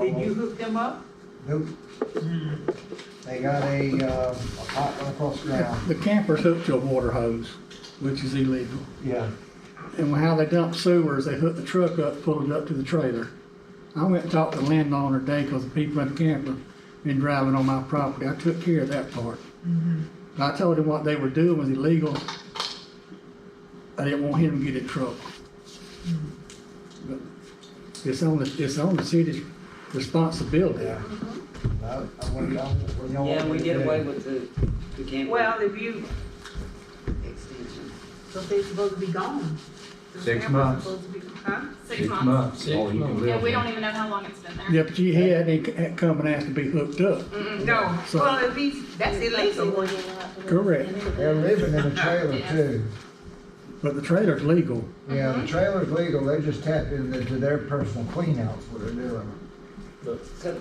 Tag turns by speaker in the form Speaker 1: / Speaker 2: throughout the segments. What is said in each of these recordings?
Speaker 1: Did you hook them up?
Speaker 2: Nope, Hmm. they got a, uh, a pipe run across the ground.
Speaker 3: The camper's hooked to a water hose, which is illegal.
Speaker 2: Yeah.
Speaker 3: And how they dump sewers, they hook the truck up, pull it up to the trailer. I went and talked to the landowner today because the people in the camper been driving on my property. I took care of that part. I told him what they were doing was illegal. I didn't want him to get in trouble. But It's on the, it's on the city's responsibility.
Speaker 2: Yeah. No, I wouldn't, I wouldn't. know what
Speaker 4: Yeah, we
Speaker 2: to
Speaker 4: did
Speaker 2: do.
Speaker 4: away with the, the camper.
Speaker 1: Well, if you,
Speaker 4: Extension.
Speaker 1: but they're supposed to be gone. The
Speaker 5: Six
Speaker 1: cameras
Speaker 5: months.
Speaker 1: supposed to be- Huh?
Speaker 6: Six months.
Speaker 5: Oh, you can
Speaker 6: Yeah,
Speaker 5: live
Speaker 6: we
Speaker 5: there.
Speaker 6: don't even know how long it's been there.
Speaker 3: Yeah, but you had, they c- come and asked to be hooked up.
Speaker 1: Mm-mm, No,
Speaker 3: So-
Speaker 1: well, if he's, that's illegal.
Speaker 3: Correct.
Speaker 2: They're living in a trailer
Speaker 6: Yeah.
Speaker 2: too.
Speaker 3: But the trailer's legal.
Speaker 2: Yeah, the trailer's legal, they just tap into to their personal cleanouts, what they're doing.
Speaker 4: So,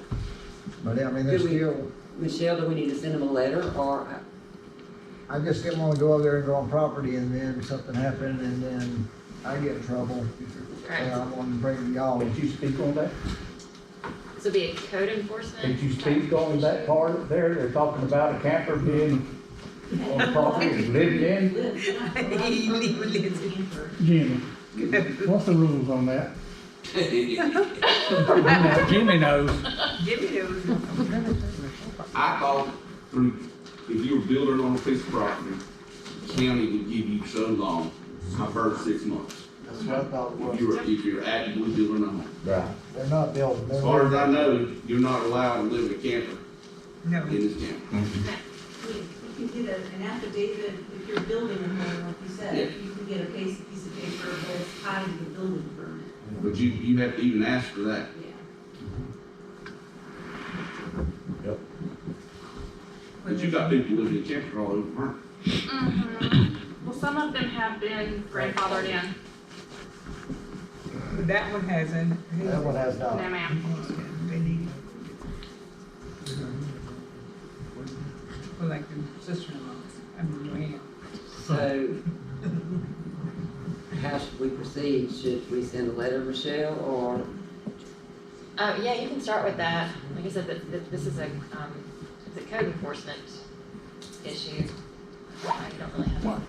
Speaker 2: But I mean, they're
Speaker 4: Do we-
Speaker 2: still,
Speaker 4: Michelle, do we need to send them a letter or, uh,
Speaker 2: I just didn't wanna go over there and go on property and then something happened and then I get in trouble. And I wanna bring y'all.
Speaker 7: Did you speak on that?
Speaker 6: This would be a code enforcement.
Speaker 7: Did you speak on that part there? They're talking about a camper being on property and living in?
Speaker 1: He lives in-
Speaker 3: Jimmy, what's the rules on that? You know, Jimmy knows.
Speaker 1: Give me those.
Speaker 8: I thought through, if you were building on a piece of property, the county would give you so long, my first six months.
Speaker 2: That's what I thought it
Speaker 8: If you're, if you're actively building a home.
Speaker 7: Right.
Speaker 2: They're not building.
Speaker 8: As far as I know, you're not allowed to live in a camper
Speaker 1: No.
Speaker 8: in this county.
Speaker 9: You can get a- an affidavit if you're building a home, like you said, you can get a piece, piece of paper that's tied to the building permit,
Speaker 8: But you, you have to even ask for that.
Speaker 9: yeah.
Speaker 8: But you got people living in camper all over, aren't
Speaker 6: Mhm. Well, some of them have been grandfathered in.
Speaker 1: That one hasn't.
Speaker 2: That one has
Speaker 6: No,
Speaker 2: not.
Speaker 6: ma'am.
Speaker 1: They need- Well, like the sister-in-law's, I mean, man.
Speaker 4: so? How should we proceed? Should we send a letter, Michelle, or?
Speaker 6: Uh, yeah, you can start with that. Like I said, that, that this is a, um, it's a code enforcement issue. I don't really have.
Speaker 3: What?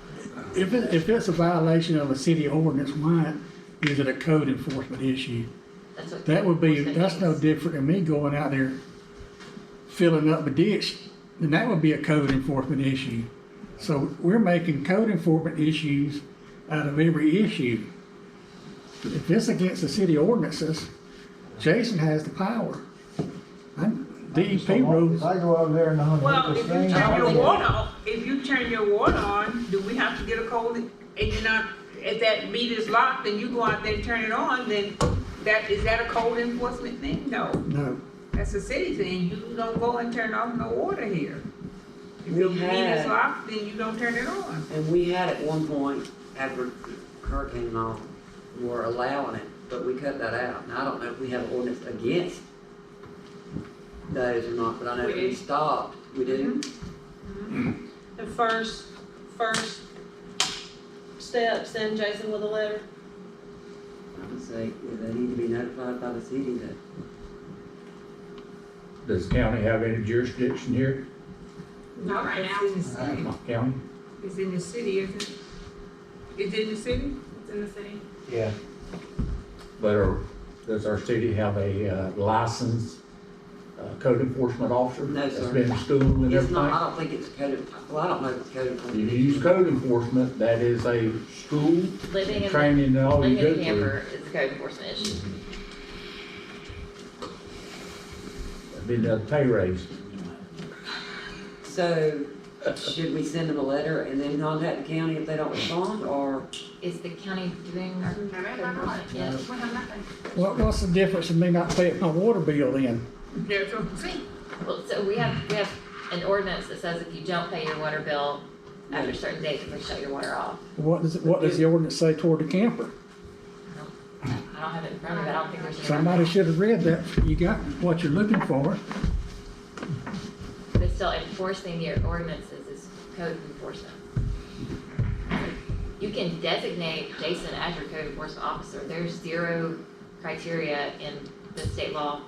Speaker 3: If it, if it's a violation of a city ordinance, why is it a code enforcement issue?
Speaker 6: That's what.
Speaker 3: That would be,
Speaker 6: enforcement
Speaker 3: that's no
Speaker 6: means.
Speaker 3: different than me going out there filling up a ditch, then that would be a code enforcement issue. So we're making code enforcement issues out of every issue. If it's against the city ordinances, Jason has the power. I'm, DEP E rules.
Speaker 2: If I go over there and hunt
Speaker 1: Well,
Speaker 2: this
Speaker 1: if
Speaker 2: thing.
Speaker 1: you turn your
Speaker 2: I'll-
Speaker 1: water, off- if you turn your water on, do we have to get a code? And you're not, if that meter's locked and you go out there and turn it on, then that, is that a code enforcement thing? No,
Speaker 3: No,
Speaker 1: that's a city thing. You don't go and turn off no water here. If your
Speaker 4: We
Speaker 1: meter's
Speaker 4: had-
Speaker 1: locked, then you don't turn it on.
Speaker 4: And we had at one point, after hurricane and all, were allowing it, but we cut that out. And I don't know if we have an ordinance against those or not, but I know
Speaker 6: We
Speaker 4: we
Speaker 6: do.
Speaker 4: stopped. We do?
Speaker 10: The first, first step, send Jason with a letter.
Speaker 6: Mm-hmm.
Speaker 4: I would say, well, they need to be notified by the city that
Speaker 7: Does county have any jurisdiction here?
Speaker 6: Not right now.
Speaker 1: It's in the city.
Speaker 7: County?
Speaker 1: It's in the city, isn't it? It's in the city?
Speaker 6: It's in the city.
Speaker 2: Yeah.
Speaker 7: But are, does our city have a uh, licensed uh, code enforcement officer?
Speaker 4: No, sir.
Speaker 7: That's been in school and
Speaker 4: It's not, I
Speaker 7: everything?
Speaker 4: don't think it's code, well, I don't know if it's code
Speaker 7: You
Speaker 4: enforcement.
Speaker 7: use code enforcement, that is a school
Speaker 6: Living in, the-
Speaker 7: training and all you
Speaker 6: living
Speaker 7: go
Speaker 6: in a
Speaker 7: through.
Speaker 6: camper is a code enforcement issue.
Speaker 7: Been a pay raise.
Speaker 4: So, should we send them a letter and then contact the county if they don't respond, or?
Speaker 6: Is the county doing our code enforcement?
Speaker 2: Yes.
Speaker 6: Yes.
Speaker 3: what, what's the difference in me not paying my water bill then?
Speaker 1: That's what I'm saying.
Speaker 6: Well, so we have, we have an ordinance that says if you don't pay your water bill after a certain date, you can shut your water off.
Speaker 3: What does, what does the ordinance say toward the camper?
Speaker 6: I don't have it in front of me, but I don't think there's. any-
Speaker 3: Somebody should have read that, you got what you're looking for.
Speaker 6: But still enforcing your ordinances is code enforcement. You can designate Jason as your code enforcement officer. There's zero criteria in the state law